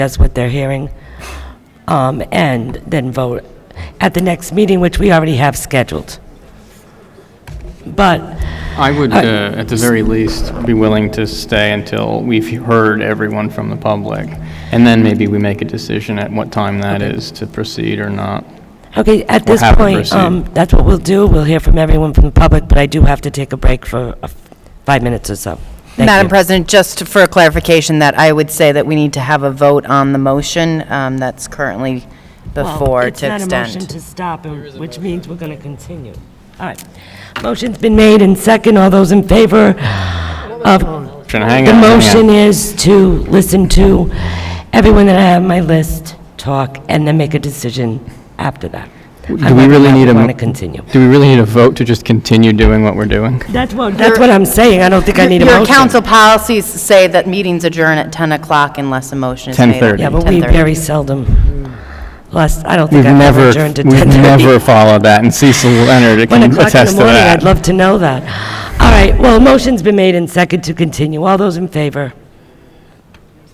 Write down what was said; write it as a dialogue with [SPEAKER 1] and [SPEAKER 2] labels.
[SPEAKER 1] that's what they're hearing, um, and then vote at the next meeting, which we already have scheduled. But,
[SPEAKER 2] I would, uh, at the very least, be willing to stay until we've heard everyone from the public, and then maybe we make a decision at what time that is to proceed or not.
[SPEAKER 1] okay, at this
[SPEAKER 2] happy to
[SPEAKER 1] point,
[SPEAKER 2] proceed.
[SPEAKER 1] um, that's what we'll do, we'll hear from everyone from the public, but I do have to take a break for uh, five minutes or so. Thank
[SPEAKER 3] Madam
[SPEAKER 1] you.
[SPEAKER 3] President, just for clarification, that I would say that we need to have a vote on the motion um, that's currently before to
[SPEAKER 1] It's not a motion
[SPEAKER 3] extend.
[SPEAKER 1] to stop, and- which means we're going to continue. All right. Motion's been made and second. All those in favor of... The
[SPEAKER 2] Should I hang on, hang on.
[SPEAKER 1] motion is to listen to everyone that I have on my list talk and then make a decision after that.
[SPEAKER 2] Do we really need a?
[SPEAKER 1] want to continue.
[SPEAKER 2] Do we really need a vote to just continue doing what we're doing?
[SPEAKER 1] That's what, that's what I'm saying. I don't think I need a
[SPEAKER 3] Your
[SPEAKER 1] motion.
[SPEAKER 3] council policies say that meetings adjourn at 10 o'clock unless a motion is made.
[SPEAKER 2] 10:30.
[SPEAKER 1] Yeah, but we
[SPEAKER 3] 10:30.
[SPEAKER 1] very seldom, last, I don't
[SPEAKER 2] We've
[SPEAKER 1] think I've ever
[SPEAKER 2] never,
[SPEAKER 1] adjourned to 10:30.
[SPEAKER 2] we've never followed that, and Cecil
[SPEAKER 1] One
[SPEAKER 2] Leonard
[SPEAKER 1] o'clock
[SPEAKER 2] can
[SPEAKER 1] in the
[SPEAKER 2] attest to
[SPEAKER 1] morning, I'd
[SPEAKER 2] that.
[SPEAKER 1] love to know that. All right, well, motion's been made and second to continue. All those in favor?